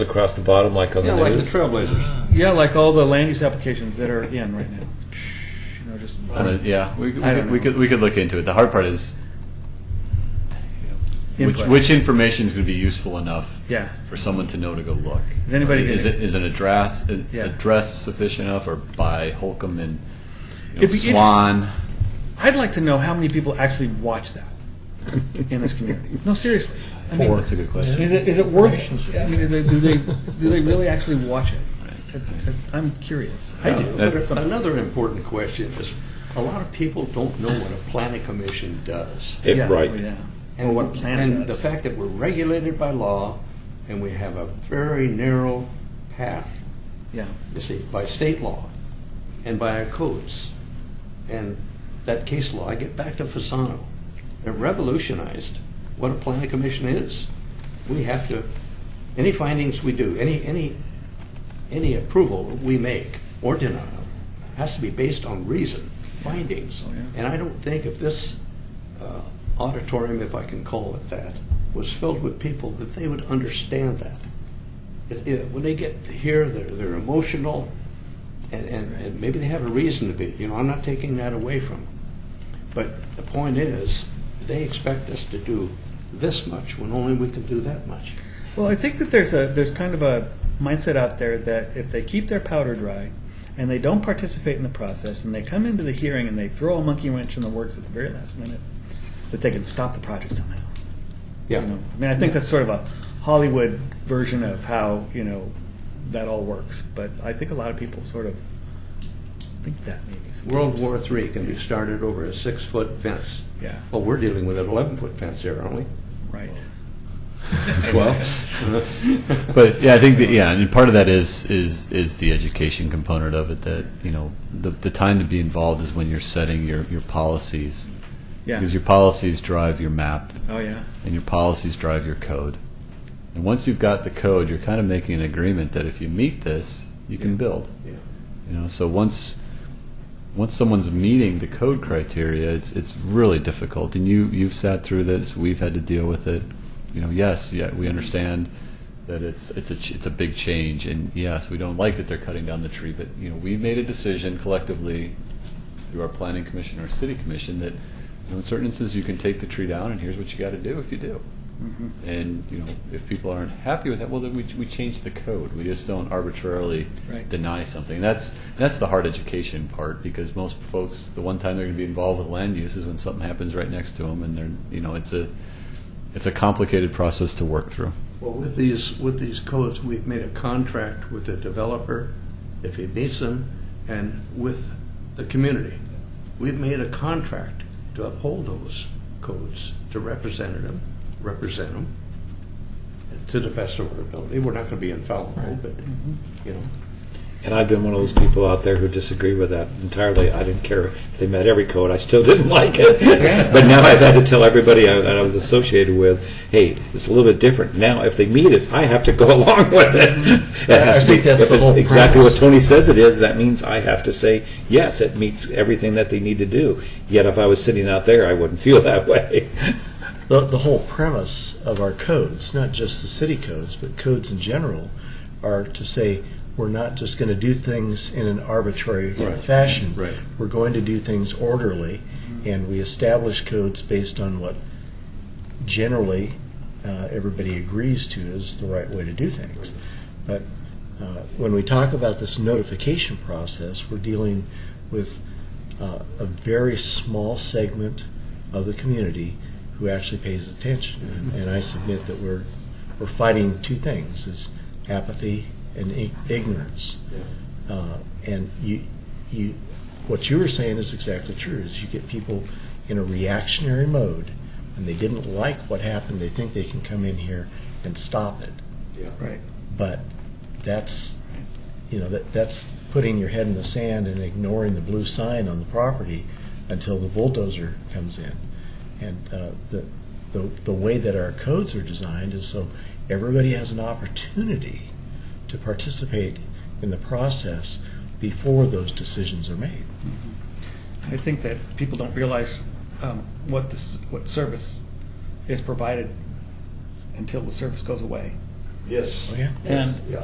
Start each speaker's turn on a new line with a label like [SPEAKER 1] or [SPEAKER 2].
[SPEAKER 1] across the bottom like on
[SPEAKER 2] Yeah,
[SPEAKER 1] the
[SPEAKER 2] like the
[SPEAKER 1] news?
[SPEAKER 2] Trailblazers.
[SPEAKER 3] Yeah, like all the land use applications that are in right now. You know, just
[SPEAKER 4] Uh, Yeah, we we
[SPEAKER 3] I
[SPEAKER 4] could,
[SPEAKER 3] don't
[SPEAKER 4] we
[SPEAKER 3] know.
[SPEAKER 4] could, we could look into it. The hard part is which,
[SPEAKER 3] input.
[SPEAKER 4] which information is going to be useful enough
[SPEAKER 3] Yeah.
[SPEAKER 4] for someone to know to go look.
[SPEAKER 3] Is anybody
[SPEAKER 4] Is,
[SPEAKER 3] gonna-
[SPEAKER 4] it, is an address a-
[SPEAKER 3] Yeah.
[SPEAKER 4] address sufficient enough, or by Holcomb and you know,
[SPEAKER 3] It'd be
[SPEAKER 4] Swan?
[SPEAKER 3] I'd like to know how many people actually watch that in this community. No, seriously. I mean,
[SPEAKER 4] Four. That's a good question.
[SPEAKER 3] Is it, is it worth it? I mean, do they, do they, do they really actually watch it? It's, I'm curious. I do.
[SPEAKER 4] That-
[SPEAKER 3] Some-
[SPEAKER 2] Another important question is, a lot of people don't know what a planning commission does.
[SPEAKER 1] It-
[SPEAKER 3] yeah,
[SPEAKER 1] right.
[SPEAKER 3] oh, yeah.
[SPEAKER 2] And-
[SPEAKER 3] what a plan
[SPEAKER 2] And the
[SPEAKER 3] does.
[SPEAKER 2] fact that we're regulated by law, and we have a very narrow path,
[SPEAKER 3] Yeah.
[SPEAKER 2] you see, by state law and by our codes. And that case law, I get back to Fasano, it revolutionized what a planning commission is. We have to, any findings we do, any, any, any approval we make or denial has to be based on reason, findings.
[SPEAKER 3] Oh, yeah.
[SPEAKER 2] And I don't think if this uh, auditorium, if I can call it that, was filled with people, that they would understand that. It- it- When they get here, they're, they're emotional, and, and, and maybe they have a reason to be. You know, I'm not taking that away from them. But the point is, they expect us to do this much when only we can do that much.
[SPEAKER 3] Well, I think that there's a there's kind of a mindset out there that if they keep their powder dry and they don't participate in the process and they come into the hearing and they throw a monkey wrench in the works at the very last minute, that they can stop the project somehow.
[SPEAKER 2] Yeah.
[SPEAKER 3] You know? I mean, I think that's sort of a Hollywood version of how you know that all works. But I think a lot of people sort of think that maybe. sometimes.
[SPEAKER 2] World War III can be started over a six-foot fence.
[SPEAKER 3] Yeah.
[SPEAKER 2] Well, we're dealing with an 11-foot fence here, aren't we?
[SPEAKER 3] Right.
[SPEAKER 4] But yeah, I think that yeah, and part of that is is is the education component of it. That you know, the the time to be involved is when you're setting your your policies,
[SPEAKER 3] Yeah.
[SPEAKER 4] because your policies drive your map
[SPEAKER 3] Oh yeah.
[SPEAKER 4] and your policies drive your code. And once you've got the code, you're kind of making an agreement that if you meet this, you can build.
[SPEAKER 2] Yeah.
[SPEAKER 4] You know, so once once someone's meeting the code criteria, it's it's really difficult. And you you've sat through this. We've had to deal with it. You know, yes, yeah, we understand that it's it's a ch- it's a big change, and yes, we don't like that they're cutting down the tree. But you know, we've made a decision collectively through our planning commission or city commission that you know, in certain instances you can take the tree down, and here's what you got to do if you do. And you know, if people aren't happy with that, well, then we, we change the code. We just don't arbitrarily
[SPEAKER 3] Right.
[SPEAKER 4] deny something. That's that's the hard education part because most folks, the one time they're going to be involved with land use is when something happens right next to them, and they're you know, it's a it's a complicated process to work through.
[SPEAKER 2] Well, with these, with these codes, we've made a contract with the developer, if he meets them, and with the community. We've made a contract to uphold those codes, to represent them, represent them, to the best of our ability. We're not going to be infallible, but, you know.
[SPEAKER 1] And I've been one of those people out there who disagree with that entirely. I didn't care if they met every code; I still didn't like it. but now I've had to tell everybody I, that I was associated with, "Hey, it's a little bit different now. If they meet it, I have to go along with it. it
[SPEAKER 5] Mm-hmm. I
[SPEAKER 1] has to be
[SPEAKER 5] think that's
[SPEAKER 1] if
[SPEAKER 5] the
[SPEAKER 1] it's
[SPEAKER 5] whole
[SPEAKER 1] exactly
[SPEAKER 5] premise.
[SPEAKER 1] what Tony says it is. That means I have to say yes. It meets everything that they need to do. Yet if I was sitting out there, I wouldn't feel that way.
[SPEAKER 5] The, the whole premise of our codes, not just the city codes, but codes in general, are to say we're not just going to do things in an arbitrary fashion.
[SPEAKER 4] Right.
[SPEAKER 5] We're going to do things orderly, and we establish codes based on what generally uh, everybody agrees to is the right way to do things. But uh, when we talk about this notification process, we're dealing with uh, a very small segment of the community who actually pays attention. And I submit that we're we're fighting two things: is apathy and ig- ignorance. Uh, and you you what you were saying is exactly true. Is you get people in a reactionary mode, and they didn't like what happened. They think they can come in here and stop it
[SPEAKER 3] Right.
[SPEAKER 5] but that's, you know, that, that's putting your head in the sand and ignoring the blue sign on the property until the bulldozer comes in. And uh, the, the, the way that our codes are designed is so everybody has an opportunity to participate in the process before those decisions are made.
[SPEAKER 3] I think that people don't realize um, what this what service is provided until the service goes away.
[SPEAKER 2] Yes.
[SPEAKER 5] Oh, yeah.
[SPEAKER 3] And
[SPEAKER 2] Yeah.